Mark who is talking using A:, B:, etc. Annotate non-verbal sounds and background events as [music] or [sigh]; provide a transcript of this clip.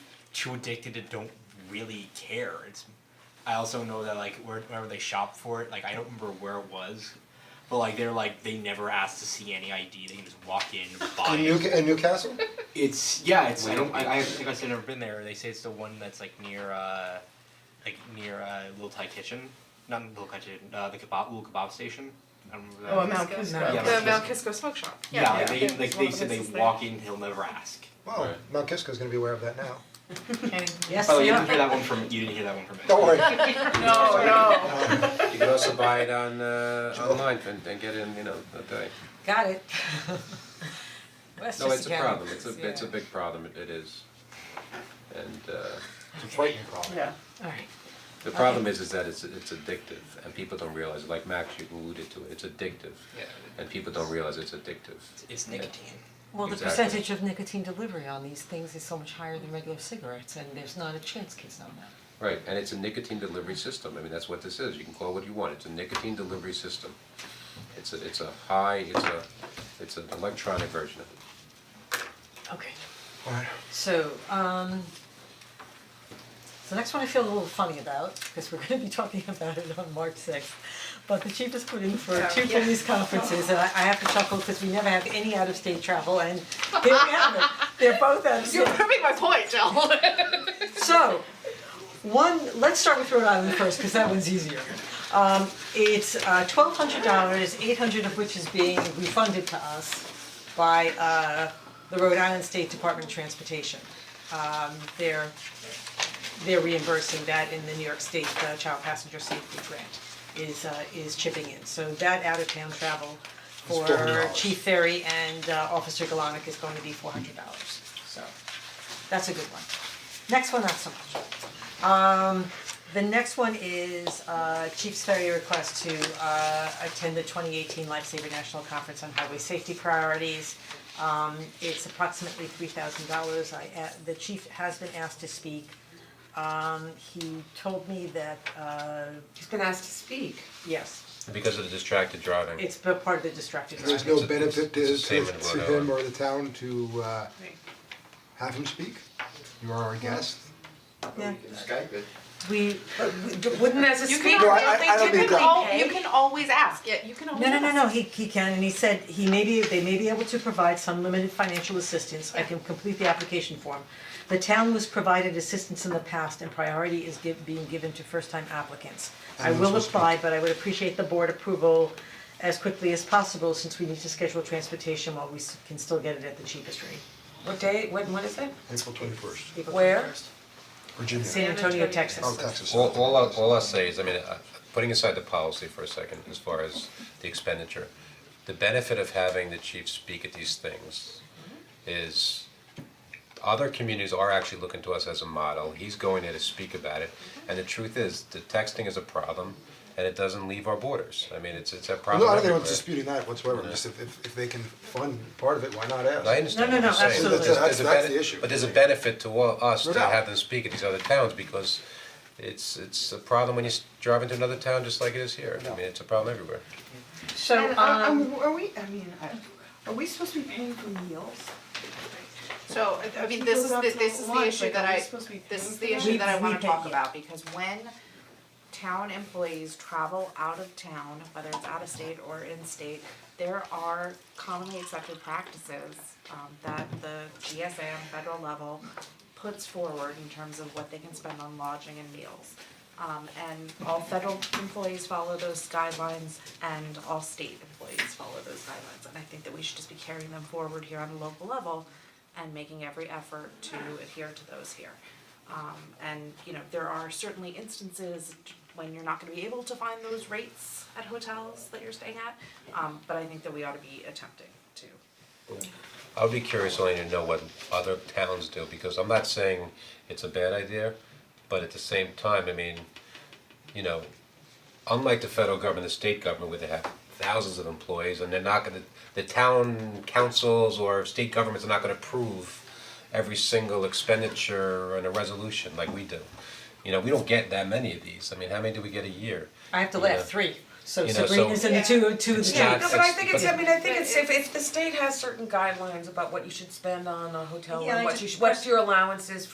A: too addicted to don't really care. It's I also know that like where, whenever they shop for it, like I don't remember where it was, but like they're like they never ask to see any ID. They can just walk in, buy.
B: In
A: it.
B: New, in
C: [laughs]
B: Newcastle?
A: It's yeah, it's I don't I, I think I said I've never been there. They say it's the one that's like near uh like near uh Little Thai Kitchen. Not Little Thai Kitchen, uh the kebab little kebab station. I don't remember that.
D: Oh, I'm out.
A: Yeah,
E: The
A: Mount
E: Mount Kisco Smoke Shop.
A: Yeah, like, they
D: yeah,
A: like
D: it's one
A: they
D: of the
A: said they
D: places there.
A: walk in, he'll never ask.
B: Wow, Mount Kisco's gonna be aware of that now.
D: Yes,
A: By the way, Oh, you didn't hear that one from you didn't hear that one from me. [laughs]
B: Don't worry.
E: No, no.
C: You can also buy it on uh online and and get it in, you know, a day.
D: Got it. Well, that's
C: No,
D: just
C: it's a
D: again,
C: problem, it's a it's a
D: yeah.
C: big problem, it it is. And uh
A: It's a frightening problem.
D: Yeah, alright.
C: the problem is is that it's it's addictive and people don't realize, it. like Max, you alluded to it, it's addictive.
A: Yeah.
C: And people don't realize it's addictive.
A: It's nicotine.
F: Well, the
C: Exactly.
F: percentage of nicotine delivery on these things is so much higher than regular cigarettes, and there's not a chance kids know that.
C: Right, and it's a nicotine delivery system, I mean, that's what this is, you can call it what you want, it's a nicotine delivery system. It's a, it's a high, it's a, it's an electronic version of it.
F: Okay,
B: Alright.
F: so, um, the next one I feel a little funny about, because we're gonna be talking [laughs] about it on March sixth. But the chief has put in for two police conferences, and I, I have to chuckle, because we never have any out-of-state travel, and here we have it, they're both out of state.
E: You're [laughs] proving my point, Jill.
F: So, one, let's start with Rhode Island first, because that one's easier. Um, it's uh twelve hundred dollars, eight hundred of which is being refunded to us by uh the Rhode Island State Department of Transportation. Um, they're they're reimbursing that in the New York State uh, Child Passenger Safety Grant is uh is chipping in. So that out of town travel for
B: $400.
F: Chief Ferry and uh Officer Galanick is going to be four hundred dollars, so that's a good one. Next one, not so much. Um, the next one is uh Chief's Ferry request to uh attend the twenty eighteen Lifesaver National Conference on Highway Safety Priorities. Um, it's approximately three thousand dollars, I, a- the chief has been asked to speak. Um, he told me that, uh,
E: He's been asked to speak.
F: yes,
C: Because of the distracted driving.
F: it's b- part of the distracted driving.
B: There's no
C: It's a- it's-
B: benefit to
C: it's the
B: to
C: same in
B: to
C: Rhode
B: him
C: Island.
B: or the town to uh have him speak. You are our guest.
F: Yeah.
B: Skype it.
F: We, but we-
E: Wouldn't as a
D: You can
E: speaker,
B: No, I-
D: they
B: I don't need
D: typically
B: that.
E: al-
D: pay.
E: you can always ask. Yeah, you can always
F: No, no, no,
E: ask.
F: no, he he can, and he said he may be, they may be able to provide some limited financial assistance, I can complete the application form. The town was provided assistance in the past and priority is give, being given to first time applicants. I will apply, but I would appreciate the board approval as quickly as possible, since we need to schedule transportation while we s- can still get it at the cheapest rate.
D: What day, when, what is it?
B: April twenty first,
F: April
D: Where?
F: 21st.
B: Virginia.
F: San Antonio, Texas.
B: Oh, Texas.
C: All, all I'll, all I'll say is, I mean, uh, putting aside the policy for a second, as far as the expenditure, the benefit of having the chief speak at these things is other communities are actually looking to us as a model, he's going there to speak about it, and the truth is, the texting is a problem, and it doesn't leave our borders, I mean, it's, it's a
B: No,
C: problem
B: I don't think
C: everywhere.
B: I'm disputing that whatsoever, just if if if they can fund part of it, why not ask?
C: I understand
F: No,
C: what
F: no,
C: you're
F: no,
C: saying, but
F: absolutely.
C: there's, there's
B: That's- that's the
C: a benefit,
B: issue.
C: but there's a benefit to all us
B: No
C: to
B: doubt.
C: have them speak at these other towns, because it's, it's a problem when you s- drive into another town just like it is here, I mean, it's a problem everywhere.
F: So,
G: And are,
F: um,
G: are- are we, I mean, I- are we supposed to be paying for meals?
E: So, I- I mean, this is, the- this is the issue that I, this is the issue that I wanna
F: We- we
E: talk
F: pay-
E: about, because when town employees travel out of town, whether it's out of state or in state, there are commonly accepted practices, um, that the GSA on federal level puts forward in terms of what they can spend on lodging and meals. Um, and all federal employees follow those guidelines and all state employees follow those guidelines. And I think that we should just be carrying them forward here on a local level and making every effort to adhere to those here. Um, and, you know, there are certainly instances when you're not gonna be able to find those rates at hotels that you're staying at. Um, but I think that we ought to be attempting to.
C: I would be curious only to know what other towns do, because I'm not saying it's a bad idea, but at the same time, I mean, you know, unlike the federal government, the state government, where they have thousands of employees, and they're not gonna, the town councils or state governments are not gonna approve every single expenditure and a resolution like we do. You know, we don't get that many of these, I mean, how many do we get a year?
F: I have to
C: Yeah.
F: laugh, three, so
C: You know, so-
F: Sabrina's in the two, two of the
C: It's
F: two.
C: not-
D: No, but I
C: It's-
D: think it's,
C: but-
D: I mean, I think it's, if, if the state has certain guidelines about what you should spend on a hotel
F: Yeah, I
D: and what
F: just-
D: you should, what your allowance is